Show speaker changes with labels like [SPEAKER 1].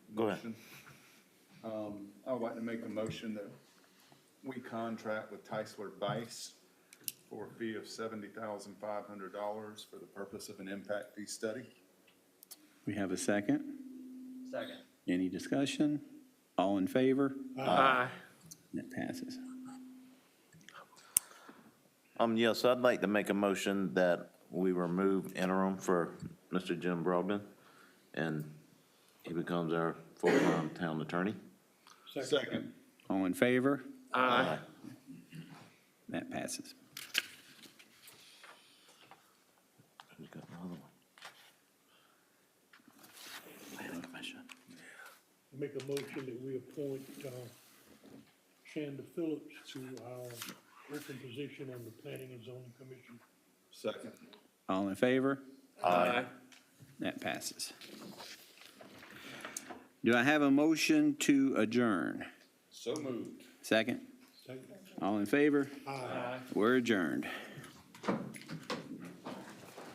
[SPEAKER 1] motion. Um, I would like to make a motion that we contract with Tysler Bice for a fee of seventy thousand five hundred dollars for the purpose of an impact fee study.
[SPEAKER 2] We have a second?
[SPEAKER 3] Second.
[SPEAKER 2] Any discussion? All in favor?
[SPEAKER 3] Aye.
[SPEAKER 2] That passes.
[SPEAKER 4] Um, yes, I'd like to make a motion that we remove interim for Mr. Jim Broadbent, and he becomes our full-time town attorney.
[SPEAKER 1] Second.
[SPEAKER 2] All in favor?
[SPEAKER 4] Aye.
[SPEAKER 2] That passes.
[SPEAKER 4] Who's got another one?
[SPEAKER 5] Make a motion that we appoint uh, Shanda Phillips to our open position on the Planning and Zoning Commission.
[SPEAKER 1] Second.
[SPEAKER 2] All in favor?
[SPEAKER 3] Aye.
[SPEAKER 2] That passes. Do I have a motion to adjourn?
[SPEAKER 1] So moved.
[SPEAKER 2] Second?
[SPEAKER 5] Second.
[SPEAKER 2] All in favor? We're adjourned.